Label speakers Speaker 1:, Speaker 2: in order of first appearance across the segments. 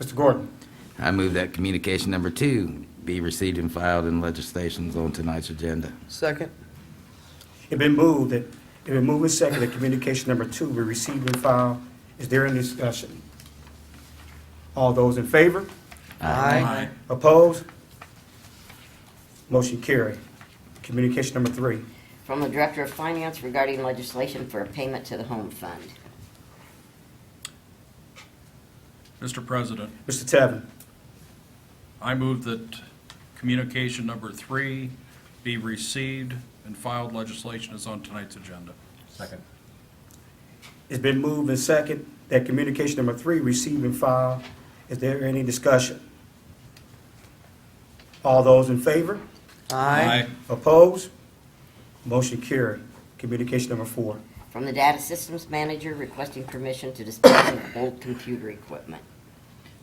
Speaker 1: Mr. Gordon.
Speaker 2: I move that communication number two be received and filed in legislations on tonight's agenda.
Speaker 3: Second.
Speaker 1: It been moved that, it been moved and seconded, that communication number two be received and filed. Is there any discussion? All those in favor?
Speaker 3: Aye.
Speaker 1: Opposed? Motion carried. Communication number three.
Speaker 4: From the Director of Finance regarding legislation for a payment to the Home Fund.
Speaker 5: Mr. President,
Speaker 1: Mr. Tevin.
Speaker 5: I move that communication number three be received and filed legislation is on tonight's agenda.
Speaker 6: Second.
Speaker 1: It's been moved and seconded that communication number three receive and file. Is there any discussion? All those in favor?
Speaker 3: Aye.
Speaker 1: Opposed? Motion carried. Communication number four.
Speaker 4: From the Data Systems Manager requesting permission to dispose of old computer equipment.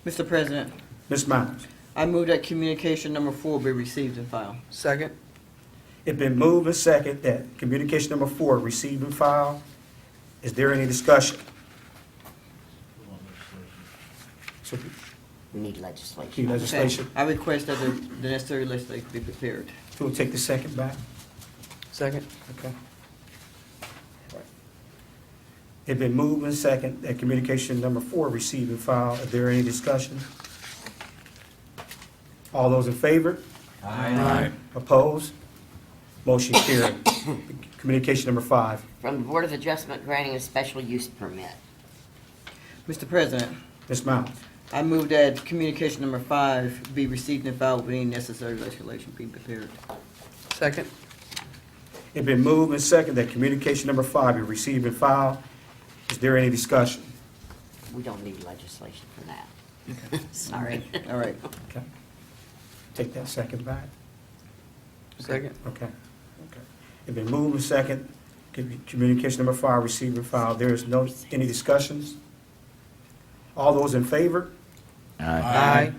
Speaker 7: Mr. President,
Speaker 1: Ms. Miles.
Speaker 7: I move that communication number four be received and filed.
Speaker 3: Second.
Speaker 1: It's been moved and seconded that communication number four receive and file. Is there any discussion? So,
Speaker 4: We need legislation.
Speaker 1: key legislation.
Speaker 7: I request that the the necessary legislation be prepared.
Speaker 1: We'll take the second back.
Speaker 3: Second.
Speaker 1: Okay. It been moved and second that communication number four receive and file. Is there any discussion? All those in favor?
Speaker 5: Aye.
Speaker 1: Opposed? Motion carried. Communication number five.
Speaker 4: From the Board of Adjustment granting a special use permit.
Speaker 7: Mr. President,
Speaker 1: Ms. Miles.
Speaker 7: I move that communication number five be received and filed with any necessary legislation be prepared.
Speaker 3: Second.
Speaker 1: It been moved and second that communication number five be received and filed. Is there any discussion?
Speaker 4: We don't need legislation for that. Sorry.
Speaker 7: All right.
Speaker 1: Okay. Take that second back.
Speaker 3: Second.
Speaker 1: Okay. Okay. It been moved and second, Commu- communication number five, receive and file. There is no, any discussions? All those in favor?
Speaker 2: Aye.
Speaker 3: Aye.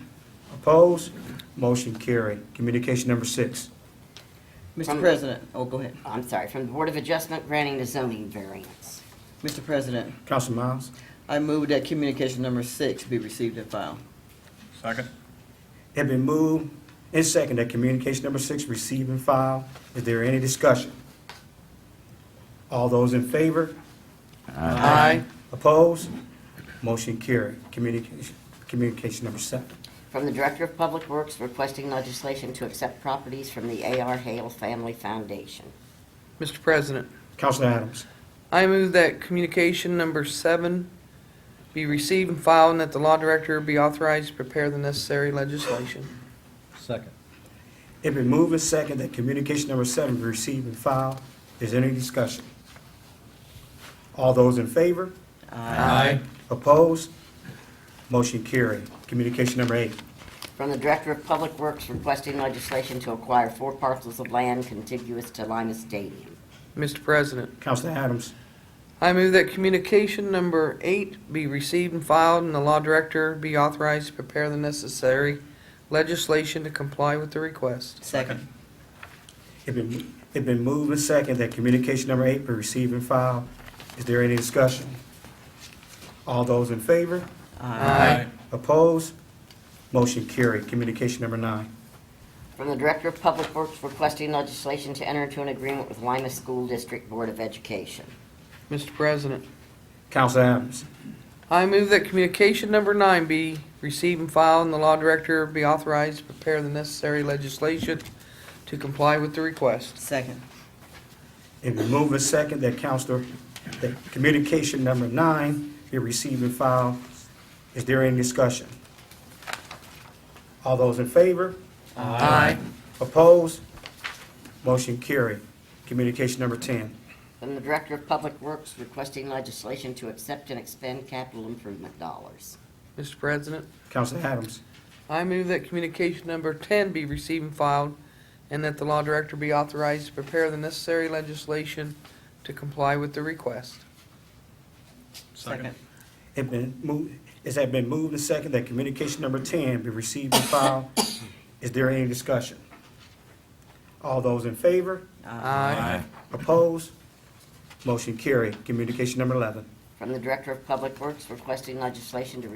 Speaker 1: Opposed? Motion carried. Communication number six.
Speaker 7: Mr.
Speaker 4: Um,
Speaker 7: President, oh, go ahead.
Speaker 4: I'm sorry, from the Board of Adjustment granting a zoning variance.
Speaker 7: Mr. President,
Speaker 1: Council Miles,
Speaker 7: I move that communication number six be received and filed.
Speaker 5: Second?
Speaker 1: it been moved and second that communication number six, receive and file. Is there any discussion? All those in favor?
Speaker 3: Aye.
Speaker 1: Opposed? Motion carried. Communication, communication number seven.
Speaker 4: From the Director of Public Works requesting legislation to accept properties from the A.R. Hale Family Foundation.
Speaker 3: Mr. President,
Speaker 1: Council Adams,
Speaker 3: I move that communication number seven be received and filed and that the law director be authorized to prepare the necessary legislation.
Speaker 6: Second.
Speaker 1: It been moved and second that communication number seven be received and filed. Is there any discussion? All those in favor?
Speaker 3: Aye.
Speaker 1: Opposed? Motion carried. Communication number eight.
Speaker 4: From the Director of Public Works requesting legislation to acquire four parcels of land contiguous to Lima Stadium.
Speaker 3: Mr. President,
Speaker 1: Council Adams,
Speaker 3: I move that communication number eight be received and filed and the law director be authorized to prepare the necessary legislation to comply with the request.
Speaker 7: Second.
Speaker 1: it been, it been moved and second that communication number eight be received and filed. Is there any discussion? All those in favor?
Speaker 3: Aye.
Speaker 1: Opposed? Motion carried. Communication number nine.
Speaker 4: From the Director of Public Works requesting legislation to enter into an agreement with Lima School District Board of Education.
Speaker 3: Mr. President,
Speaker 1: Council Adams,
Speaker 3: I move that communication number nine be received and filed, and the law director be authorized to prepare the necessary legislation to comply with the request.
Speaker 7: Second.
Speaker 1: it been moved and second that Councilor, that communication number nine be received and filed. Is there any discussion? All those in favor?
Speaker 3: Aye.
Speaker 1: Opposed? Motion carried. Communication number 10.
Speaker 4: From the Director of Public Works requesting legislation to accept and expend capital improvement dollars.
Speaker 3: Mr. President,
Speaker 1: Council Adams.
Speaker 3: I move that communication number ten be received and filed, and that the law director be authorized to prepare the necessary legislation to comply with the request.
Speaker 7: Second.
Speaker 1: It been moved, it has been moved and seconded that communication number 10 be received and filed. Is there any discussion? All those in favor?
Speaker 3: Aye.
Speaker 1: Opposed? Motion carried. Communication number 11.
Speaker 4: From the Director of Public Works requesting legislation to